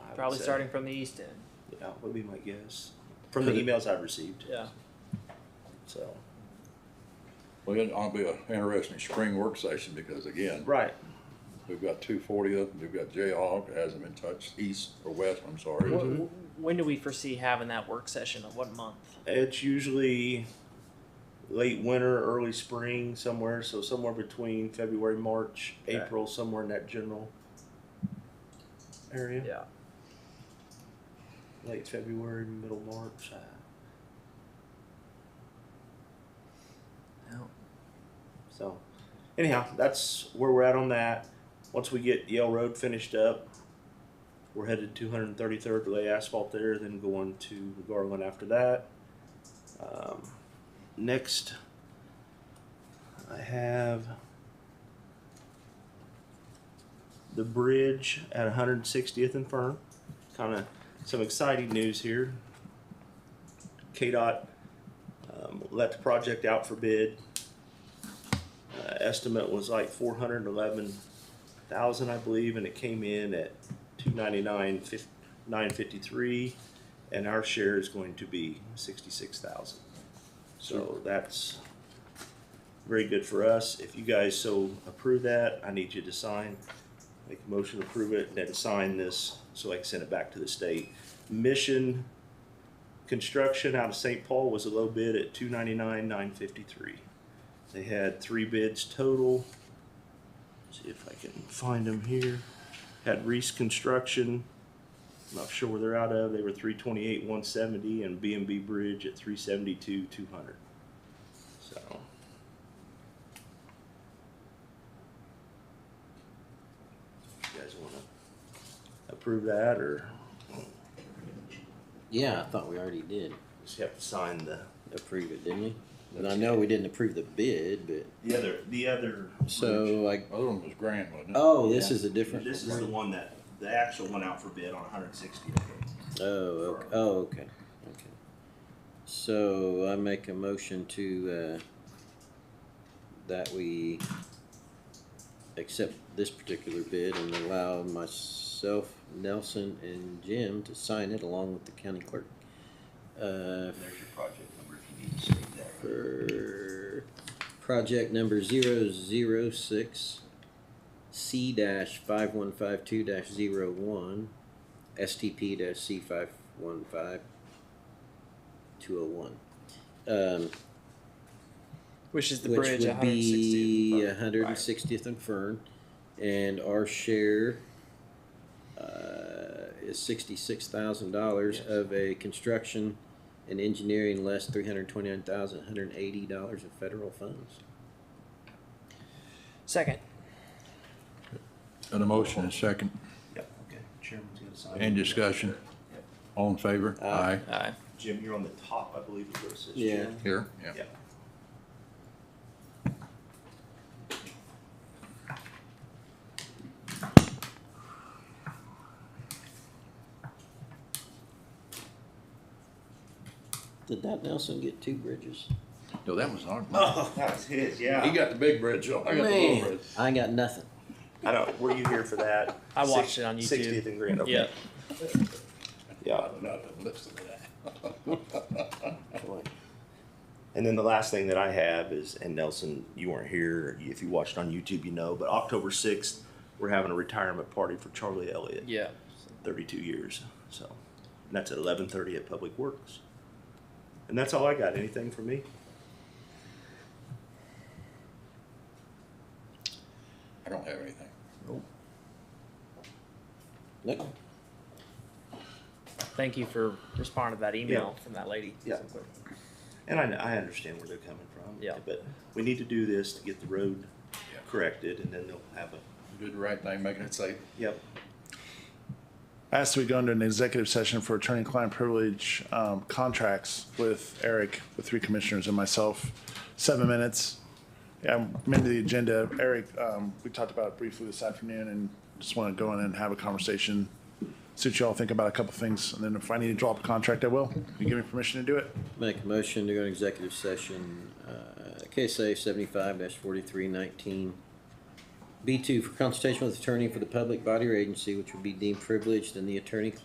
would Probably say. starting from the east end. Yeah, would be my guess from the Could it- emails I've received. Yeah. So Well, it ought to be an interesting spring work session because again, right. we've got two fortieth, we've got Jayhawk, it hasn't been touched, east or west, I'm sorry. Wh- wh- When do we foresee having that work session? Of what month? It's usually late winter, early spring, somewhere. So somewhere between February, March, Okay. April, somewhere in that general area. Yeah. Late February, middle March. uh, So, anyhow, that's where we're at on that. Once we get Yale Road finished up, we're headed to 233rd to lay asphalt there, then going to Garland after that. Um, next, I have the bridge at 160th and Fern. Kind of some exciting news here. KDOT um, let the project out for bid uh, estimate was like four hundred and eleven thousand, I believe, and it came in at two ninety-nine, nine fifty-three, and our share is going to be sixty-six thousand. So that's very good for us. If you guys so approve that, I need you to sign, make a motion to approve it, and then sign this, so I can send it back to the state. Mission Construction out of St. Paul was a low bid at two ninety-nine, nine fifty-three. They had three bids total. See if I can find them here. Had Reese Construction, not sure where they're out of. They were three twenty-eight, one seventy, and B and B Bridge at three seventy-two, two hundred. So. You guys wanna approve that or Yeah, I thought we already did just have to sign the? approve it, didn't we? And I know we didn't approve the bid, but, The other, the other. so like, Other one was Grand, wasn't it? oh, this Yeah. is a different. This is the one that, the actual one out for bid on hundred sixty. Oh, okay, oh, okay, okay. So I make a motion to, uh, that we accept this particular bid and allow myself, Nelson, and Jim to sign it along with the county clerk. Uh, There's your project number if you need to save that. for project number zero zero six C dash five one five two dash zero one STP dash C five one five two oh one. Um, Which is the which bridge? would be One hundred and sixty. 160th and Fern, and our share uh, is sixty-six thousand dollars Yes. of a construction and engineering less three hundred twenty-nine thousand one hundred eighty dollars of federal funds. Second. And a motion and second, Yep, okay, chairman's gonna sign. and it. discussion, all in favor? Aye. Aye. Jim, you're on the top, I believe is where it says. Yeah. Jim. Here, yeah. Yeah. Did that Nelson get two bridges? No, that was our, Oh, that was his, yeah. he got the big bridge, I got the little Man, bridge. I got nothing. I know, were you here for that? I watched it on YouTube. Sixtieth and Grand, okay. Yeah. Yeah, Nothing, listen to that. Boy, and then the last thing that I have is, and Nelson, you weren't here, if you watched on YouTube, you know, but October sixth, we're having a retirement party for Charlie Elliott. Yeah. thirty-two years. So, and that's at eleven thirty at Public Works. And that's all I got. Anything for me? I don't have anything. Look, Thank you for responding to that email from that lady. Yeah. And I, I understand where they're coming from. Yeah. But we need to do this to get the road Yeah. corrected, and then they'll have a. You Did the right thing, making it safe. Yep. asked we go into an executive session for attorney-client privilege um, contracts with Eric, the three commissioners and myself, seven minutes. I'm into the agenda. Eric, um, we talked about it briefly this afternoon and just want to go in and have a conversation. See what y'all think about a couple things, and then if I need to drop a contract, I will. You give me permission to do it? Make a motion to go to executive session, uh, KSA seventy-five forty-three nineteen. B two, for consultation with attorney for the public body or agency which would be deemed privileged and the attorney